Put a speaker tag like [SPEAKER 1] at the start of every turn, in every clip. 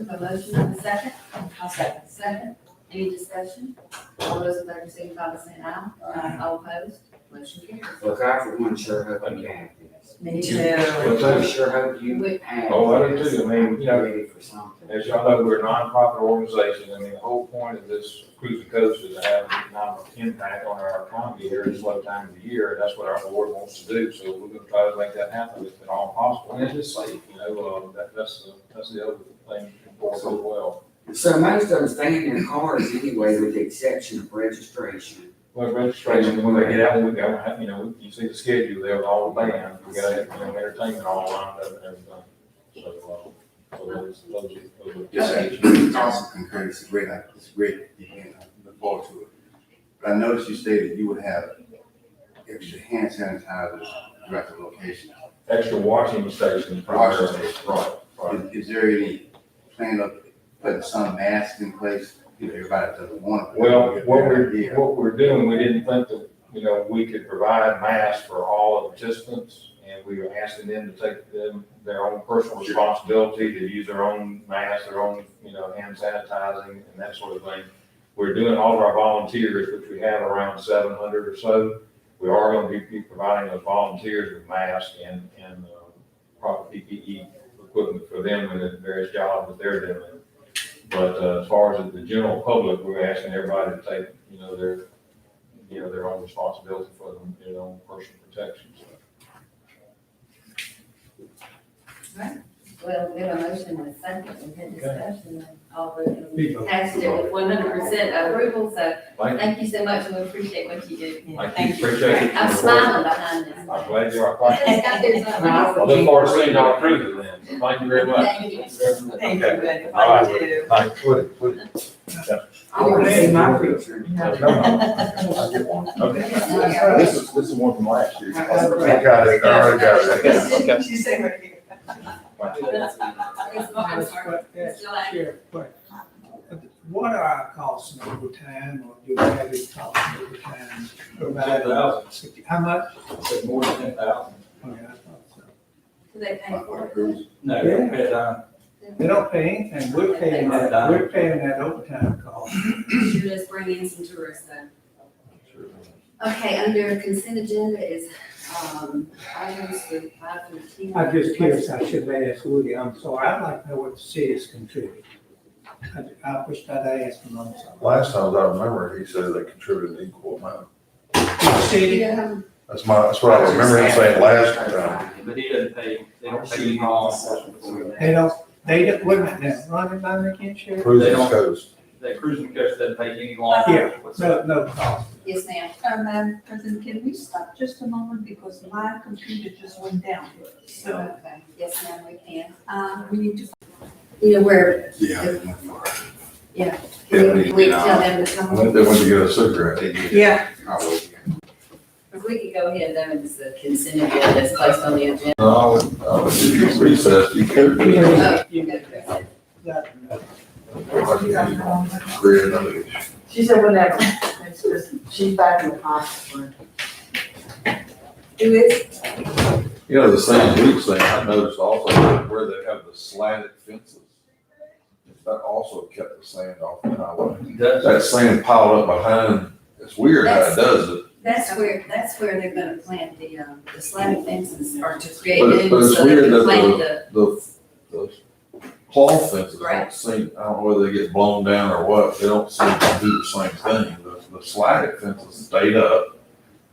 [SPEAKER 1] A motion and a second?
[SPEAKER 2] I'll second.
[SPEAKER 1] Second, any discussion? All those in favor signify by saying aye.
[SPEAKER 2] Aye.
[SPEAKER 1] All opposed, motion carries.
[SPEAKER 3] Look, I for one sure hope you have this.
[SPEAKER 2] Me
[SPEAKER 1] too.
[SPEAKER 3] Look, I sure hope you
[SPEAKER 1] Wait.
[SPEAKER 3] have.
[SPEAKER 4] Oh, I do
[SPEAKER 3] this.
[SPEAKER 4] too. I mean, you know-
[SPEAKER 3] Ready for something.
[SPEAKER 4] As y'all know, we're a nonprofit organization. I mean, the whole point of this cruise the coast is to have an economic impact on our economy here at this low time of the year. And that's what our board wants to do. So we're gonna try to make that happen if at all possible. And it's just safe, you know, uh, that, that's, the- that's the other thing important as well.
[SPEAKER 3] So most of them stay in their cars anyway, with the exception of registration.
[SPEAKER 4] Well, registration, when they get out, we got, you know, you see the schedule there with all the bands. We got, you know, entertainment all lined up and everything. So, uh, so those, those,
[SPEAKER 5] Yes,
[SPEAKER 4] those.
[SPEAKER 5] I also concur, it's a great, it's a great event, I look forward to it. But I noticed you stated you would have extra hand sanitizers throughout the location.
[SPEAKER 4] Extra washing stations.
[SPEAKER 5] Washing
[SPEAKER 4] primarily.
[SPEAKER 5] stations.
[SPEAKER 4] Right, right.
[SPEAKER 5] Is, is there any plan of putting some masks in place, you know, everybody doesn't want to.
[SPEAKER 4] Well, what we're,
[SPEAKER 5] Yeah.
[SPEAKER 4] what we're doing, we didn't think that, you know, we could provide masks for all of the participants, and we were asking them to take them, their own personal responsibility to use their own masks, their own, you know, hand sanitizing and that sort of thing. We're doing all of our volunteers, which we have around seven hundred or so. We are gonna be- be providing those volunteers with masks and, and uh, proper PPE equipment for them and the various jobs that they're doing. But uh, as far as the general public, we're asking everybody to take, you know, their, you know, their own responsibility for them, their own personal protection.
[SPEAKER 1] Well, we have a motion and a second, and then discussion, and all the
[SPEAKER 4] People.
[SPEAKER 1] passed it with one hundred percent approval, so
[SPEAKER 4] Thank
[SPEAKER 1] thank you so much, and we appreciate what you do.
[SPEAKER 4] you, thank you, appreciate it.
[SPEAKER 1] I'm smiling behind this.
[SPEAKER 4] I'm glad you're.
[SPEAKER 1] It's got to do
[SPEAKER 3] Now,
[SPEAKER 1] something.
[SPEAKER 4] I look forward to seeing y'all approve it then. Thank you very much.
[SPEAKER 1] Thank you.
[SPEAKER 2] Thank you, buddy.
[SPEAKER 4] All right.
[SPEAKER 2] Thank you.
[SPEAKER 4] Thanks.
[SPEAKER 3] I want to see my picture.
[SPEAKER 6] This is, this is one from last year.
[SPEAKER 3] I
[SPEAKER 6] got it,
[SPEAKER 1] I already got
[SPEAKER 2] it. She said right here.
[SPEAKER 1] It's not- I'm sorry. It's July.
[SPEAKER 7] Chair, but what are our costs in overtime, or do we have any costs in overtime? provided? How much?
[SPEAKER 4] more than ten thousand.
[SPEAKER 7] Okay, I thought so.
[SPEAKER 1] Do they pay for it?
[SPEAKER 4] No,
[SPEAKER 7] we
[SPEAKER 4] paid
[SPEAKER 7] They don't pay anything, we're paying that, we're paying that overtime cost.
[SPEAKER 1] Should just bring in some tourists then. Okay, under consent agenda is, um, items with five through ten.
[SPEAKER 7] I'm just curious, I should have asked Woody, I'm sorry, I'd like to know what the city is contributing. I- I wish I'd asked him, I'm sorry.
[SPEAKER 6] Last time, as I remember, he said they contributed an equal amount.
[SPEAKER 7] The city,
[SPEAKER 1] Yeah,
[SPEAKER 6] That's my, that's what I remember him saying last time.
[SPEAKER 8] But he doesn't pay, they don't pay any
[SPEAKER 3] all
[SPEAKER 8] costs.
[SPEAKER 7] they don't, they don't, wait a minute, now, Ronnie, mind me again, Sheriff?
[SPEAKER 6] Cruising coast.
[SPEAKER 8] That cruising coast doesn't pay any loss.
[SPEAKER 7] Yeah. No, no cost.
[SPEAKER 1] Yes, ma'am.
[SPEAKER 2] Uh, Madam President, can we stop just a moment because my computer just went down. So,
[SPEAKER 1] Okay, yes, ma'am, we can.
[SPEAKER 2] uh, we need to
[SPEAKER 1] You know, where,
[SPEAKER 5] Yeah, they went for it.
[SPEAKER 1] we
[SPEAKER 5] Yeah,
[SPEAKER 1] we
[SPEAKER 5] we-
[SPEAKER 1] tell them to
[SPEAKER 6] I
[SPEAKER 1] come.
[SPEAKER 6] went there when you get a cigarette.
[SPEAKER 5] They did.
[SPEAKER 2] Yeah.
[SPEAKER 5] I was-
[SPEAKER 1] If we could go ahead, then it's the consent agenda that's placed on the agenda.
[SPEAKER 6] No, I would, I would give you recess. You could.
[SPEAKER 1] Oh, you got it.
[SPEAKER 6] Great, I mean,
[SPEAKER 9] She said whatever, it's just, she's back in the hospital.
[SPEAKER 2] do it.
[SPEAKER 6] You know, the same week thing, I noticed also where they have the slatted fences. That also kept the sand off the highway. That sand piled up behind, it's weird how it does it.
[SPEAKER 1] That's where, that's where they're gonna plant the, um, the slatted fences or to create
[SPEAKER 6] But it- but
[SPEAKER 1] new,
[SPEAKER 6] it's
[SPEAKER 1] so they
[SPEAKER 6] weird
[SPEAKER 1] can
[SPEAKER 6] that
[SPEAKER 1] plant the,
[SPEAKER 6] The, the claw fences
[SPEAKER 1] Right.
[SPEAKER 6] don't seem, I don't know whether they get blown down or what, they don't seem to do the same thing. The, the slatted fences stayed up.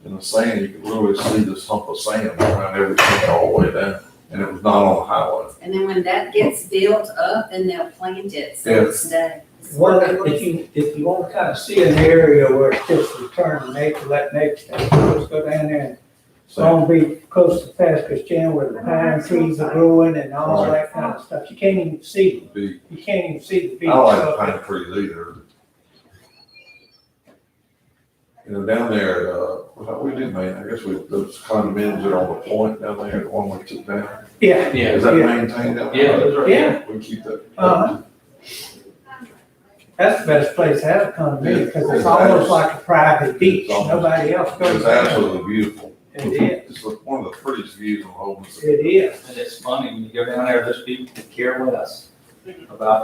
[SPEAKER 6] In the sand, you could literally see this hump of sand around everything all the way down, and it was not on the highway.
[SPEAKER 1] and then when that gets built up, then they'll plant it, so it'll
[SPEAKER 6] Yes.
[SPEAKER 1] stay.
[SPEAKER 7] Well, if you, if you want to kind of see an area where it's just return to nature, let nature, take over, let's go down there and
[SPEAKER 6] So,
[SPEAKER 7] Long Beach, close to Pascagoula, where the pine trees are growing and all that kind of stuff. You can't even see,
[SPEAKER 6] it'd be-
[SPEAKER 7] you can't even see the
[SPEAKER 6] I
[SPEAKER 7] beach.
[SPEAKER 6] don't like the
[SPEAKER 7] So-
[SPEAKER 6] pine trees either. You know, down there, uh, what we did, man, I guess we, those condominiums that are on the point down there, the one we took down.
[SPEAKER 7] Yeah,
[SPEAKER 8] Yeah,
[SPEAKER 6] Is that
[SPEAKER 7] Yeah.
[SPEAKER 6] maintained down
[SPEAKER 8] yeah,
[SPEAKER 6] there?
[SPEAKER 8] those are.
[SPEAKER 7] yeah,
[SPEAKER 6] We keep that.
[SPEAKER 7] Uh-huh. that's the best place to have a condominium, because it's almost like a private beach, nobody else goes
[SPEAKER 6] It's
[SPEAKER 7] there.
[SPEAKER 6] absolutely beautiful.
[SPEAKER 7] It is,
[SPEAKER 6] It's the- one of the prettiest views in the whole Mississippi.
[SPEAKER 7] it is.
[SPEAKER 8] And it's funny, when you go down there, those people care with us about